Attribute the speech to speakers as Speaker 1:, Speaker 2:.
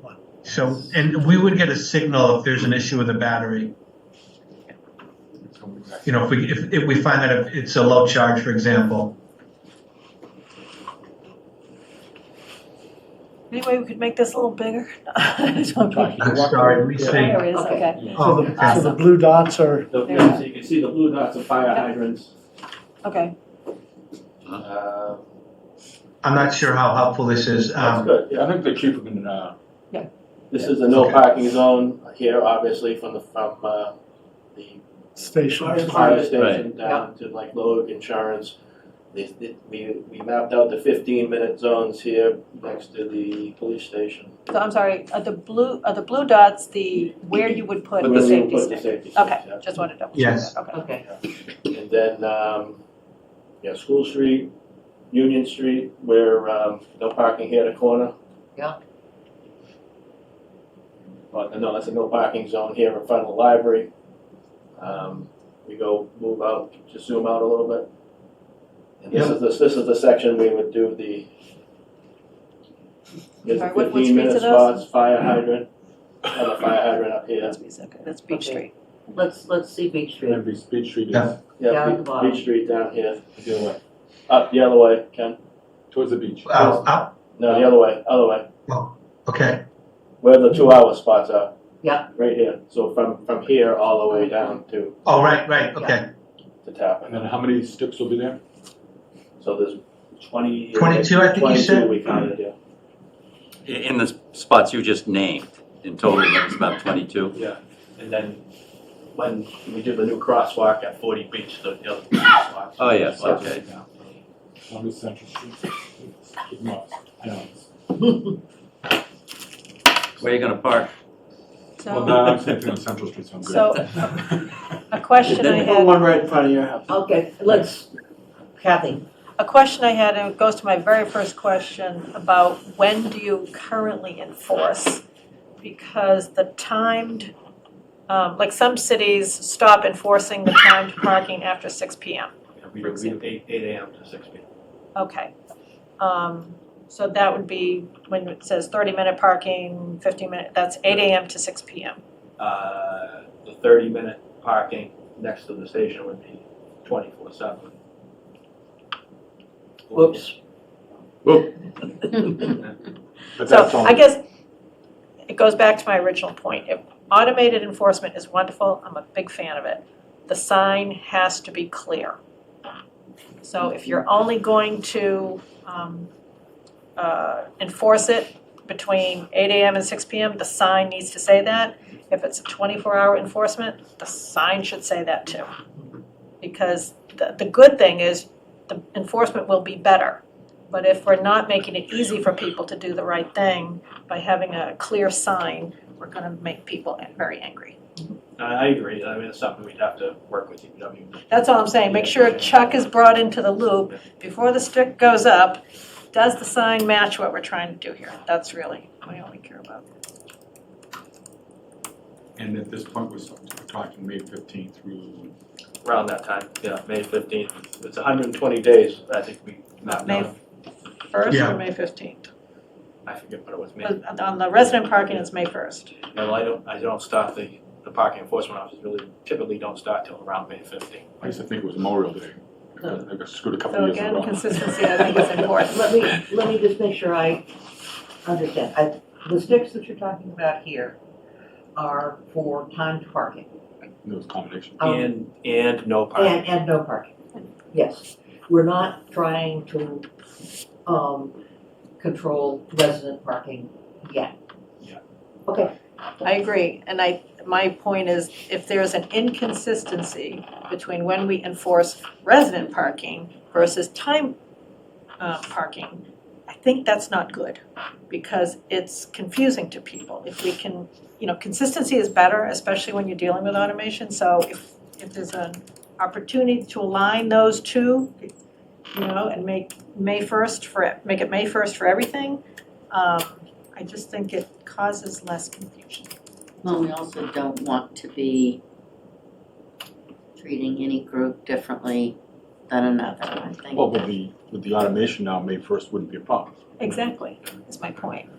Speaker 1: one.
Speaker 2: So, and we would get a signal if there's an issue with the battery. You know, if we, if, if we find that it's a low charge, for example.
Speaker 3: Anyway, we could make this a little bigger.
Speaker 2: I'm sorry, we see.
Speaker 3: There it is, okay.
Speaker 1: So the, so the
Speaker 3: Awesome.
Speaker 1: blue dots are,
Speaker 4: The-
Speaker 3: There.
Speaker 4: So you can see the blue dots are fire
Speaker 3: Yep.
Speaker 4: hydrants.
Speaker 3: Okay,
Speaker 4: Uh,
Speaker 2: I'm not sure how helpful this is.
Speaker 4: That's
Speaker 2: Um,
Speaker 4: good, yeah.
Speaker 5: I think the chief can, uh,
Speaker 4: This is a no parking zone here, obviously, from the, from uh, the
Speaker 1: stationed.
Speaker 4: fire
Speaker 6: Right.
Speaker 4: station down to like Lowick Insurance. They- they- We, we mapped out the fifteen-minute zones here next to the police station.
Speaker 3: so I'm sorry, are the blue, are the blue dots the, where you would put
Speaker 4: But
Speaker 3: the
Speaker 4: then we
Speaker 3: safety
Speaker 4: put the
Speaker 3: stick?
Speaker 4: safety sticks,
Speaker 3: Okay,
Speaker 4: yeah.
Speaker 3: just wanted to double check
Speaker 2: Yes.
Speaker 3: that, okay.
Speaker 6: Okay,
Speaker 4: And then, um, yeah, School Street, Union Street, where, um, no parking here at the corner.
Speaker 6: Yeah.
Speaker 4: But, no, that's a no parking zone here in front of the library. Um, we go, move out, just zoom out a little bit. And this is, this, this is the section we would do the, there's
Speaker 3: Sorry, what-
Speaker 4: the
Speaker 3: what
Speaker 4: fifteen minute
Speaker 3: streets are those?
Speaker 4: spots, fire hydrant, and a fire hydrant up here.
Speaker 3: That's, Beach- okay, that's Beach
Speaker 6: Okay.
Speaker 3: Street.
Speaker 6: let's, let's see Beach Street.
Speaker 5: every speed street
Speaker 2: Yeah.
Speaker 5: is
Speaker 6: Down
Speaker 4: Yeah,
Speaker 6: at the
Speaker 4: Beach,
Speaker 6: bottom.
Speaker 4: Beach Street down here,
Speaker 5: the other way,
Speaker 4: up the other way, Ken,
Speaker 5: towards the beach.
Speaker 2: uh, uh,
Speaker 4: no, the other way, other way.
Speaker 2: okay,
Speaker 4: Where the two hour spots are.
Speaker 6: Yeah.
Speaker 4: Right here, so from, from here all the way down to,
Speaker 2: oh, right, right, okay.
Speaker 4: to
Speaker 5: And
Speaker 4: Tappan.
Speaker 5: then how many sticks will be there?
Speaker 4: So there's twenty.
Speaker 2: 22, I think you said?
Speaker 4: Twenty-two we counted, yeah.
Speaker 7: In the spots you just named, in total, that's about 22.
Speaker 4: And then when we do the new crosswalk at forty beach, the the other crosswalk.
Speaker 7: Oh, yes, okay.
Speaker 5: On the central street. Keep them off. I know.
Speaker 7: Where are you going to park?
Speaker 5: Well,
Speaker 3: So,
Speaker 5: no, I'm thinking on Central Street, so I'm good.
Speaker 3: so a question I
Speaker 4: Then put
Speaker 3: had,
Speaker 4: one right in front of your house.
Speaker 6: Okay, let's, Kathy,
Speaker 3: a question I had, and it goes to my very first question about when do you currently enforce? Because the timed, um, like some cities stop enforcing the timed parking after six P M.
Speaker 4: We do eight, eight AM to six PM.
Speaker 3: Okay. Um, so that would be when it says thirty minute parking, fifteen minute, that's eight AM to six PM.
Speaker 4: Uh, the thirty minute parking next to the station would be twenty-four seven.
Speaker 6: whoops.
Speaker 5: But that's
Speaker 3: So
Speaker 5: all.
Speaker 3: I guess it goes back to my original point. If automated enforcement is wonderful, I'm a big fan of it. The sign has to be clear. So if you're only going to, um, uh, enforce it between eight AM and six PM, the sign needs to say that. If it's a twenty-four hour enforcement, the sign should say that too. Because the, the good thing is the enforcement will be better. But if we're not making it easy for people to do the right thing by having a clear sign, we're gonna make people very angry.
Speaker 4: I, I agree, I mean, it's something we'd have to work with E DPW.
Speaker 3: That's all I'm saying, make sure Chuck is brought into the loop before the stick goes up. Does the sign match what we're trying to do here? That's really what I only care about.
Speaker 5: And at this point, we're sort of talking May fifteenth through,
Speaker 4: around that time, yeah, May fifteenth. It's hundred and twenty days, I think we mapped
Speaker 3: May
Speaker 4: out,
Speaker 3: first
Speaker 2: Yeah.
Speaker 3: or May fifteenth?
Speaker 4: I forget what it was, May.
Speaker 3: On the resident parking, it's May first.
Speaker 4: No, I don't, I don't start the, the parking enforcement officers really typically don't start till around May fifteenth.
Speaker 5: I used to think it was Memorial Day. I got- I got screwed a couple
Speaker 3: So
Speaker 5: of years in a
Speaker 3: again,
Speaker 5: row.
Speaker 3: consistency I think is important.
Speaker 6: Let me, let me just make sure I understand. I, the sticks that you're talking about here are for timed parking.
Speaker 5: It was a combination.
Speaker 6: Um,
Speaker 4: And, and no parking.
Speaker 6: And, and no parking, yes. We're not trying to, um, control resident parking yet.
Speaker 4: Yeah.
Speaker 6: Okay,
Speaker 3: I agree, and I, my point is, if there's an inconsistency between when we enforce resident parking versus time uh, parking, I think that's not good, because it's confusing to people. If we can, you know, consistency is better, especially when you're dealing with automation, so if, if there's an opportunity to align those two, you know, and make May first for, make it May first for everything, um, I just think it causes less confusion.
Speaker 8: Well, we also don't want to be treating any group differently than another, I think.
Speaker 5: Well, with the, with the automation now, May first wouldn't be a problem.
Speaker 3: Exactly, is my point.